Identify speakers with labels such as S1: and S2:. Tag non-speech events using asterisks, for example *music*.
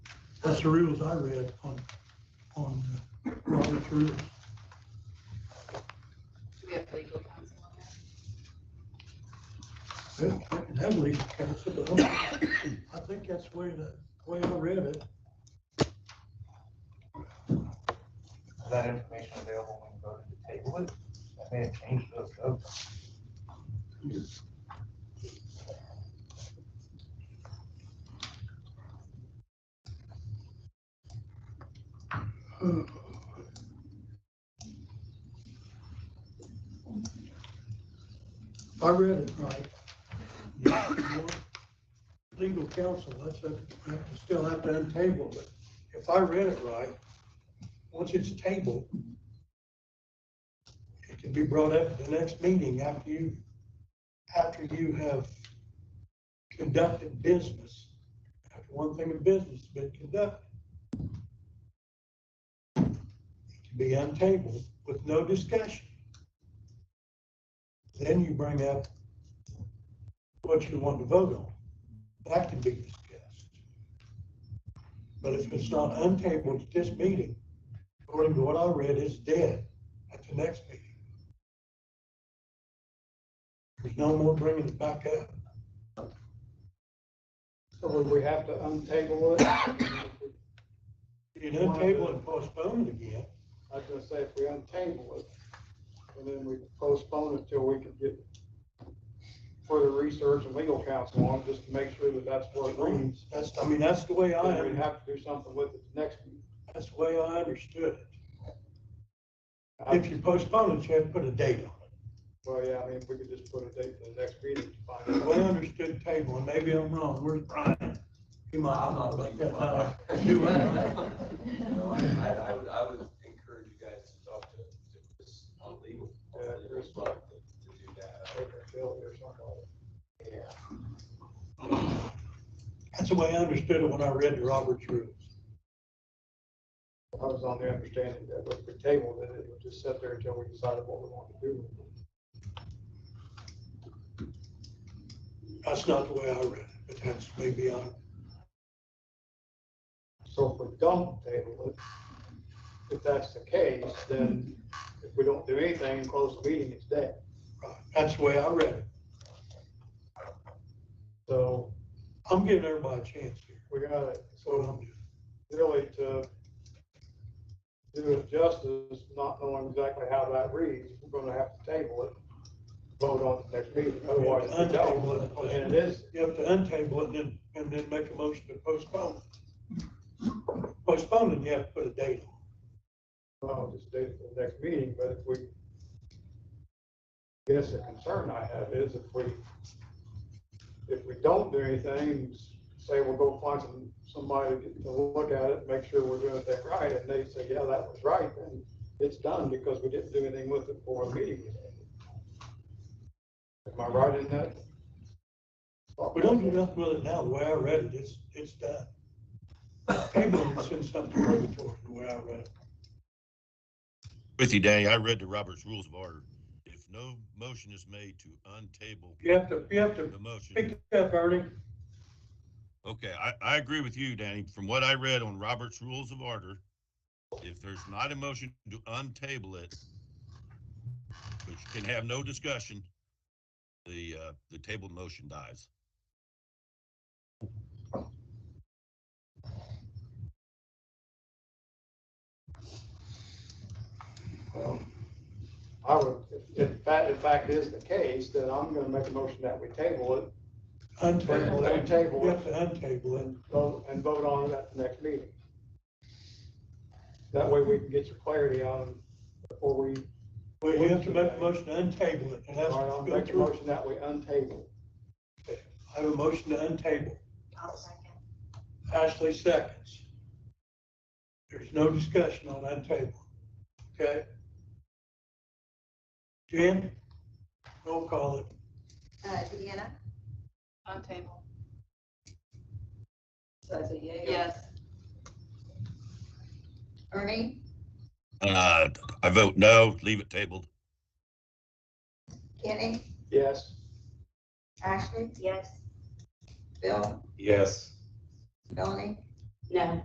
S1: That's the rules I read on, on uh, Robert's rules.
S2: Do we have legal counsel on that?
S1: Well, I can have legal counsel, but I don't- I think that's the way, the way I read it.
S3: Is that information available when you voted to table it? I may have changed those votes.
S1: I read it right. If you want Legal counsel, that's, a- you have to still have to untable, but if I read it right, once it's tabled, it can be brought up at the next meeting after you, after you have conducted business. After one thing of business has been conducted. It can be untabled with no discussion. Then you bring up what you want to vote on. That can be discussed. But if it's not untabled at this meeting, according to what I read, it's dead at the next meeting. There's no more bringing it back up.
S4: So would we have to untable it? *coughs* I'd
S1: You can untable and postpone it again.
S4: just say if we untable it, and then we postpone it till we could get further research and legal counsel on it, just to make sure that that's what it reads.
S1: That's, I mean, that's the way I,
S4: We'd have to do something with it next meeting.
S1: that's the way I understood it. If you postpone it, you have to put a date on it.
S4: Well, yeah, I mean, we could just put a date for the next meeting to find out.
S1: Well, I understood table, and maybe I'm wrong, where's Brian? He might not like that, uh, do *laughs* that.
S5: No, I, I, I would, I would encourage you guys to talk to, to Chris on legal, on
S4: Yeah,
S5: the
S4: Chris.
S5: legal side to to do that.
S1: That's the way I understood it when I read the Robert's rules.
S4: I was on the understanding that if we tabled it, it would just sit there until we decided what we wanted to do with it.
S1: That's not the way I read it, but that's maybe I,
S4: So if we don't table it, if that's the case, then if we don't do anything and close the meeting, it's dead.
S1: right, that's the way I read it.
S4: So
S1: I'm giving everybody a chance here,
S4: we gotta,
S1: that's what
S4: so
S1: I'm doing.
S4: really to do it justice, not knowing exactly how that reads, we're gonna have to table it, vote on it next meeting, otherwise we don't. And it is,
S1: You have to untable it and then, and then make a motion to postpone it. Postpone it, you have to put a date on
S4: well, just do it for the next meeting, but if we, guess the concern I have is if we, if we don't do anything, say we'll go find some, somebody to look at it, make sure we're doing it that right, and they say, yeah, that was right, then it's done because we didn't do anything with it before the meeting. was ended. Am I right in that?
S1: it. We don't do nothing with it now, the way I read it, it's, it's done. Table it's in some purgatory, the way I read it.
S6: With you, Danny, I read the Robert's Rules of Order. If no motion is made to untable
S1: You have to, you have to
S6: the motion,
S1: pick it up, Ernie.
S6: okay, I, I agree with you, Danny. From what I read on Robert's Rules of Order, if there's not a motion to untable it, which can have no discussion, the, uh, the tabled motion dies.
S4: Well, I would, if if that in fact is the case, then I'm gonna make a motion that we table it
S1: Untable it.
S4: Untable it.
S1: You have to untable it.
S4: and vote, and vote on it at the next meeting. That way we can get some clarity on it before we,
S1: Well, you have to make a motion to untable it, and that's.
S4: All right, I'll make a motion that we untable.
S1: I have a motion to untable.
S2: I'll second.
S1: Ashley seconds. There's no discussion on untable, okay? Jen, roll call it.
S7: Uh, Deanna?
S2: On table.
S7: So that's a yay?
S2: Yes.
S7: Ernie?
S6: Uh, I vote no, leave it tabled.
S7: Kenny?
S4: Yes,
S7: Ashley?
S2: Yes.
S7: Bill?
S5: Yes.
S7: Melanie?
S2: No.